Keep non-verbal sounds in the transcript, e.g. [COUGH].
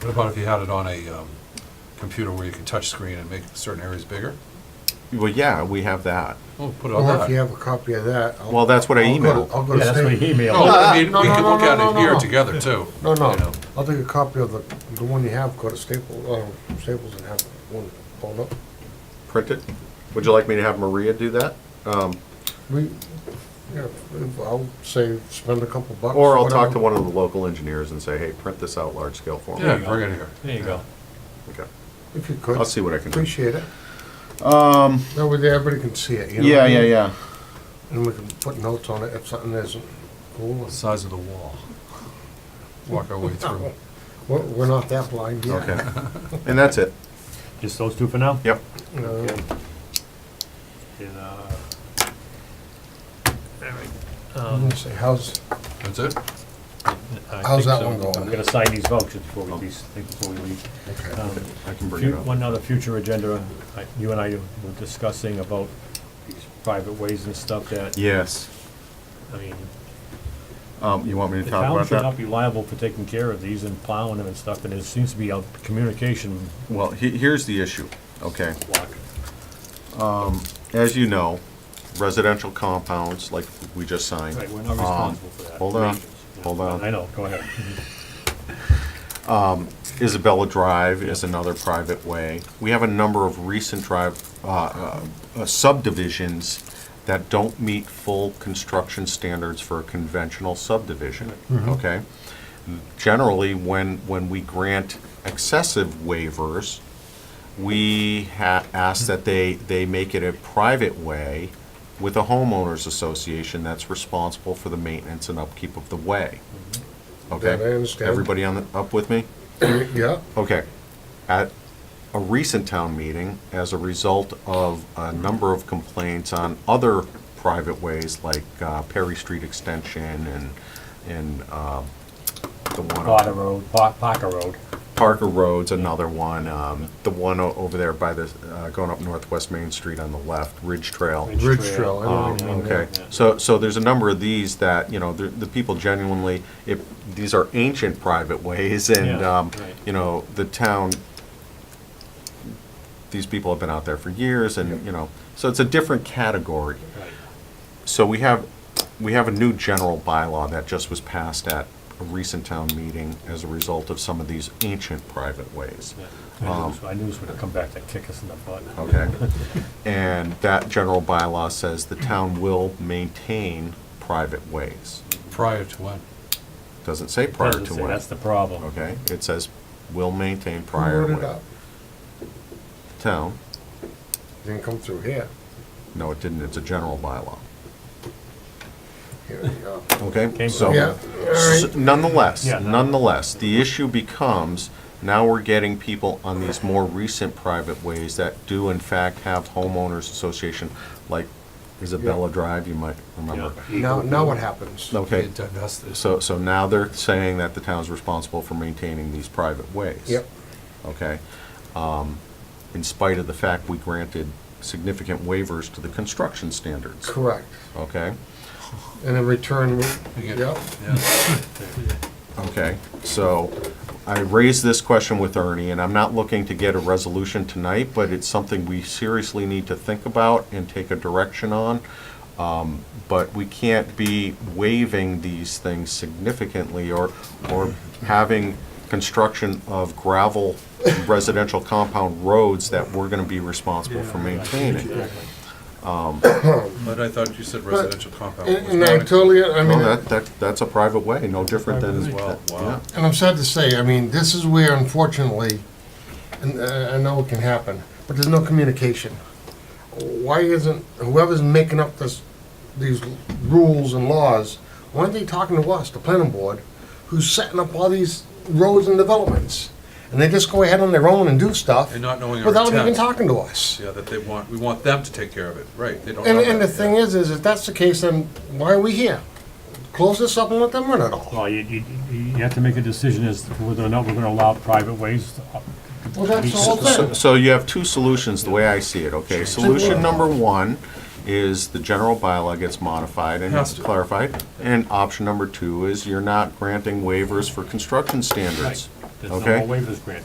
What about if you had it on a um, computer where you could touch screen and make certain areas bigger? Well, yeah, we have that. Oh, put it on Well, that. if you have a copy of that. I'll- Well, that's what I I'll go to- emailed. I'll go Yeah, to that's what state. he emailed. No, Oh, I mean, No, we no, could no, look no, at no, it here no. together too. No, you no, know. I'll take a copy of the, the one you have, go to Staples, uh, Staples and have one pulled up. Print it. Would you like me to have Maria do that? Um, We, yeah, I'll say spend a couple bucks. Or I'll talk to whatever. one of the local engineers and say, hey, print this out large scale for me. Yeah, you go. bring it here. There you go. Okay. If you could. I'll see what I can do. Appreciate it. Um. That way everybody can see it, you know? Yeah, yeah, yeah. And we can put notes on it if something isn't cool. Size of the wall. Walk our way through. We're, we're not that blind yet. Okay. And that's it. Just those two for now? Yep. Uh, And, uh, um, I'm gonna say, how's, That's it? I How's think that so. one going? I'm gonna sign these vouchers before we, these- before we leave. okay, Um, I can bring Few- it up. One other future agenda, I- you and I were discussing about these private ways and stuff that, Yes. I mean, Um, you want me to the talk town about should not that? be liable for taking care of these and plowing them and stuff, and there seems to be a communication Well, he, here's the issue, okay? Um, block. As you know, residential compounds, like we just signed. Right, we're not um, responsible for that. Hold on, Regions. hold on. I know, go ahead. Isabella Drive is another private way. We have a number of recent drive, uh, uh, subdivisions that don't meet full construction standards for a conventional subdivision, Mm-hmm. okay? Generally, when, when we grant excessive waivers, we ha- ask that they, they make it a private way with a homeowners association that's responsible for the maintenance and upkeep of the way. Okay? Mm-hmm. That I understand. Everybody on, the- up with me? yeah, Okay. At a recent town meeting, as a result of a number of complaints on other private ways like uh, Perry Street Extension and, and um, the one. on- Potter Road, Pa- Parker Road. Parker Road's another one, um, the one o- over there by the, uh, going up Northwest Main Street on the left, Ridge Trail. Ridge Trail, I know Um, what you mean. Okay, so, so there's a number of these that, you know, the, the people genuinely, if, these are ancient private ways and, Yeah, um, right. you know, the town, these people have been out there for years and, you know, so it's a different category. Right. So we have, we have a new general bylaw that just was passed at a recent town meeting as a result of some of these ancient private ways. Yeah. I Um, knew this- I knew this would come back to kick us in the butt. [LAUGHS] Okay. And that general bylaw says the town will maintain private ways. Prior to when? Doesn't say prior Doesn't to say when. That's the problem. Okay, it says will maintain Who prior wrote it to up? town. Didn't come through here. No, it didn't. It's a general bylaw. Here we go. Okay, Came so. from- Yeah, all S- right. Nonetheless, Yeah, no. nonetheless, the issue becomes, now we're getting people on these more recent private ways that do in fact have homeowners association, like Isabella Drive, you might remember. Yeah. Now, now what happens? Okay, Get divested. so, so now they're saying that the town's responsible for maintaining these private ways. Yep, Okay? Um, In spite of the fact we granted significant waivers to the construction standards. correct. Okay? And in return, we- You get- yep, Yeah. Okay, so I raised this question with Ernie, and I'm not looking to get a resolution tonight, but it's something we seriously need to think about and take a direction on. Um, But we can't be waiving these things significantly or, or having construction of gravel residential compound roads that we're gonna be responsible for maintaining. But I thought you said residential compound. and was and not I included. totally, I No, mean, that, that, that's a private way, no different than. Private way. Well, wow. yeah. and I'm sad to say, I mean, this is where unfortunately, and uh, I know it can happen, but there's no communication. Why isn't, whoever's making up this, these rules and laws, why aren't they talking to us, the planning board, who's setting up all these roads and developments? And they just go ahead on their own and do stuff. And not knowing our Without even intent. talking to us. Yeah, that they want, we want them to take care of it, right, they don't. And, know and the that, thing yeah. is, is if that's the case, then why are we here? Close this up and let them run it all. Well, you, you, you have to make a decision as to whether or not we're gonna allow private ways. Well, that's the whole So thing. so you have two solutions, the way I see it, okay? Solution number one is the general bylaw gets modified and Has it's to. clarified. And option number two is you're not granting waivers for construction standards. There's no Okay. more waivers granted.